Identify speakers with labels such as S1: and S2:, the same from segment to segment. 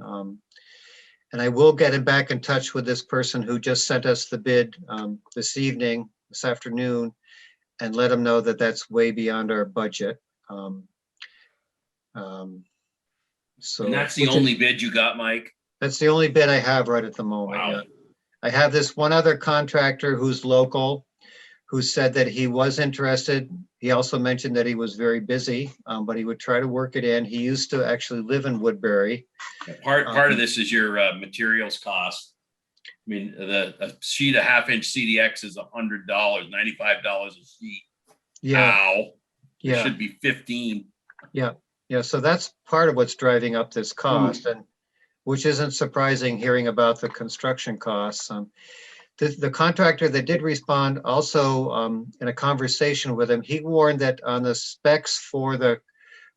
S1: Um, And I will get him back in touch with this person who just sent us the bid um, this evening, this afternoon, and let him know that that's way beyond our budget. Um, um, So.
S2: And that's the
S1: which is-
S2: only bid you got, Mike?
S1: That's the only bid I have right at the moment.
S2: Wow.
S1: yeah. I have this one other contractor who's local, who said that he was interested. He also mentioned that he was very busy, um, but he would try to work it in. He used to actually live in Woodbury.
S2: Part,
S1: Um,
S2: part of this is your uh, materials cost. I mean, the, a sheet of half inch CDX is a hundred dollars, ninety-five dollars a sheet.
S1: Yeah,
S2: Ow. It
S1: yeah,
S2: Ah, Should be fifteen.
S1: yeah. So that's part of what's driving up
S3: Hmm.
S1: this cost and which isn't surprising hearing about the construction costs. Um, The, the contractor that did respond also, um, in a conversation with him, he warned that on the specs for the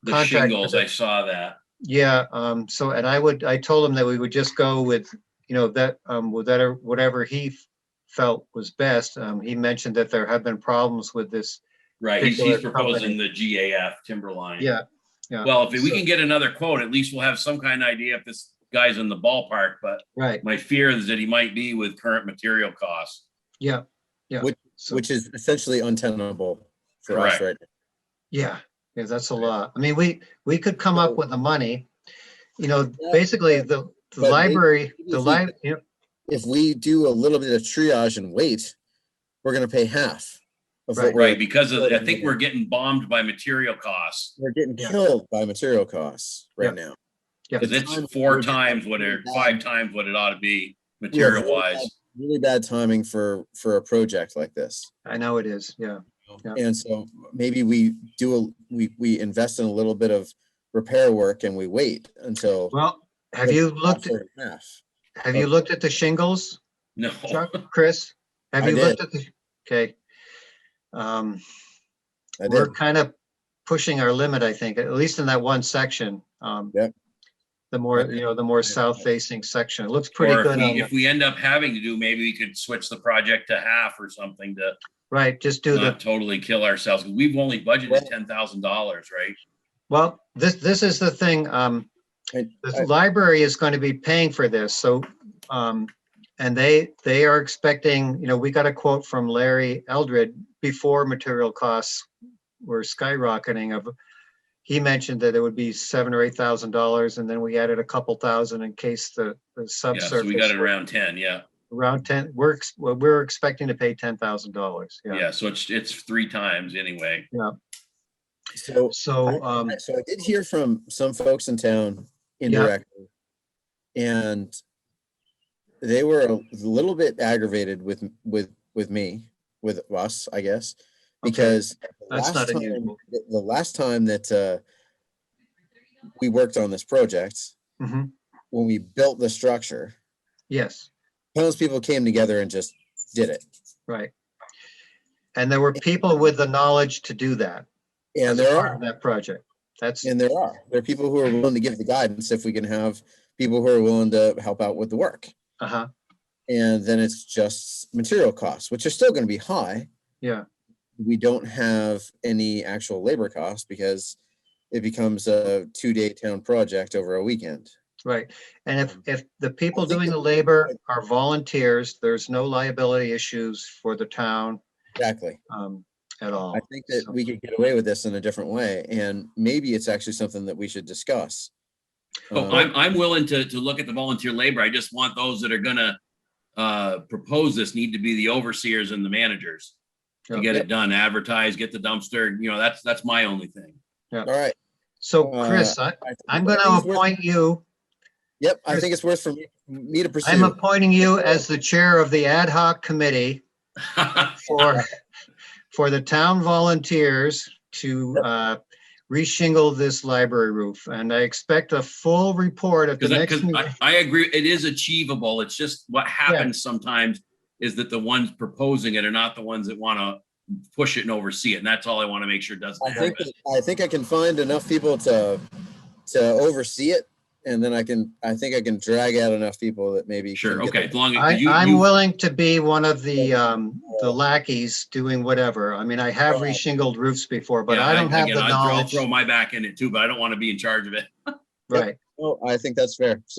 S2: The
S1: Contract for
S2: shingles,
S1: the-
S2: I saw that.
S1: Yeah, um, so, and I would, I told him that we would just go with, you know, that, um, with that, or whatever he f- felt was best. Um, he mentioned that there have been problems with this.
S2: Right, he's, he's
S1: Particular
S2: proposing the GAF Timberline.
S1: Yeah,
S2: Well, if we
S1: so-
S2: can get another quote, at least we'll have some kind of idea if this guy's in the ballpark, but
S1: right,
S2: my fear is that he might be with current material costs.
S1: yeah, yeah.
S3: Which-
S1: So,
S3: which is essentially untenable for us
S2: Correct.
S3: right now.
S1: yeah, yeah, that's a lot. I mean, we, we could come
S3: So-
S1: up with the money. You know,
S3: Yeah,
S1: basically, the, the
S3: but may-
S1: library,
S3: maybe
S1: the
S3: if we
S1: lib, you know,
S3: If we do a little bit of triage and wait, we're gonna pay half of
S1: Right.
S3: what
S2: Right,
S3: we're,
S2: because of, I
S3: Right.
S2: think we're getting bombed by material costs.
S3: we're getting
S1: Yeah.
S3: killed by material costs
S1: Yeah.
S3: right now.
S1: Yeah.
S2: Cause
S3: The
S2: it's
S3: time
S2: four
S3: we're-
S2: times what it, five times what it ought to be material wise.
S3: Really bad timing for, for a project like this.
S1: I know it is, yeah, Yeah.
S3: And so maybe we do, a we, we invest in a little bit of repair work and we wait until.
S1: well, have
S3: it's
S1: you
S3: not
S1: looked,
S3: for Half.
S1: have you looked at the shingles?
S2: No,
S1: Chuck, Chris, have
S3: I
S1: you
S3: did.
S1: looked at the, okay. Um,
S3: I did.
S1: we're kind of pushing our limit, I think, at least in that one section. Um,
S3: Yep.
S1: The more,
S3: Okay.
S1: you know, the more
S3: Yeah.
S1: south facing section. It looks pretty
S2: or if
S1: good. on
S2: we,
S1: the-
S2: if we end up having to do, maybe we could switch the project to half or something to
S1: Right, just do the,
S2: not totally kill ourselves. We've only budgeted
S3: Well-
S2: ten thousand dollars, right?
S1: well, this, this is the thing, um,
S3: I- I-
S1: the library is going to be paying for this, so, um, and they, they are expecting, you know, we got a quote from Larry Eldred before material costs were skyrocketing of, he mentioned that it would be seven or eight thousand dollars, and then we added a couple thousand in case the, the
S2: Yeah, so we
S1: subsurface.
S2: got it around ten, yeah.
S1: Around ten, we're, ex- well, we're expecting to pay ten thousand dollars, yeah,
S2: Yeah, so it's, it's three times anyway.
S3: So
S1: so,
S3: I-
S1: um,
S3: I- So I did hear from some folks in town indirectly. And they were a little bit aggravated with, m- with, with me, with us, I guess,
S1: Okay.
S3: because. the
S1: That's
S3: last
S1: not
S3: time-
S1: unusual.
S3: The the last time that, uh, we worked on this project,
S1: mhm,
S3: when we built the structure,
S1: yes.
S3: those people came together and just did it.
S1: Right. And there were people with the knowledge to do that. as
S3: And
S1: a
S3: there
S1: part
S3: are,
S1: of That project. That's,
S3: and there are, there are people who are willing to give the guidance if we can have people who are willing to help out with the work.
S1: uh-huh,
S3: And then it's just material costs, which are still gonna be high.
S1: yeah,
S3: We don't have any actual labor costs because it becomes a two-day town project over a weekend.
S1: right. And if, if the people
S3: think
S1: doing the
S3: it-
S1: labor are volunteers, there's no liability issues for the town
S3: Exactly.
S1: um, at all.
S3: I think that
S1: So-
S3: we could get away with this in a different way, and maybe it's actually something that we should discuss.
S2: Oh,
S3: Um,
S2: I'm, I'm willing to, to look at the volunteer labor. I just want those that are gonna uh, propose this need to be the overseers and the managers to
S1: Yeah.
S2: get it done, advertise, get the dumpster, you know, that's, that's my only thing.
S3: All right.
S1: So Chris, I,
S3: I think
S1: I'm going
S3: that is
S1: to
S3: Uh, worth-
S1: appoint you,
S3: Yep, I think it's worth for me, me to
S1: I'm
S3: pursue.
S1: appointing you as the chair of the ad hoc committee for, for the town volunteers to uh, reshingle this library roof. And I expect a full report at the
S2: Because I, 'cause
S1: next meeting.
S2: I, I agree, it is achievable. It's just what happens sometimes is that the ones proposing it are not the ones that wanna push it and oversee it. And that's all I wanna make sure doesn't
S3: I think,
S2: happen.
S3: that- I think I can find enough people to, to oversee it. And then I can, I think I can drag out enough people that maybe. can
S2: Sure,
S3: get
S2: okay,
S3: the-
S2: as long as
S1: I,
S2: you,
S1: I'm
S2: you,
S1: willing to be one of the, um, the lackeys doing whatever. I mean, I have
S3: Right.
S1: reshingled roofs before, but
S2: yeah,
S1: I don't have
S2: again,
S1: the
S2: I'll throw-
S1: knowledge.
S2: Throw my back in it too, but I don't wanna be in charge of it.
S3: Yep.
S1: Right.
S3: Oh, I think that's fair.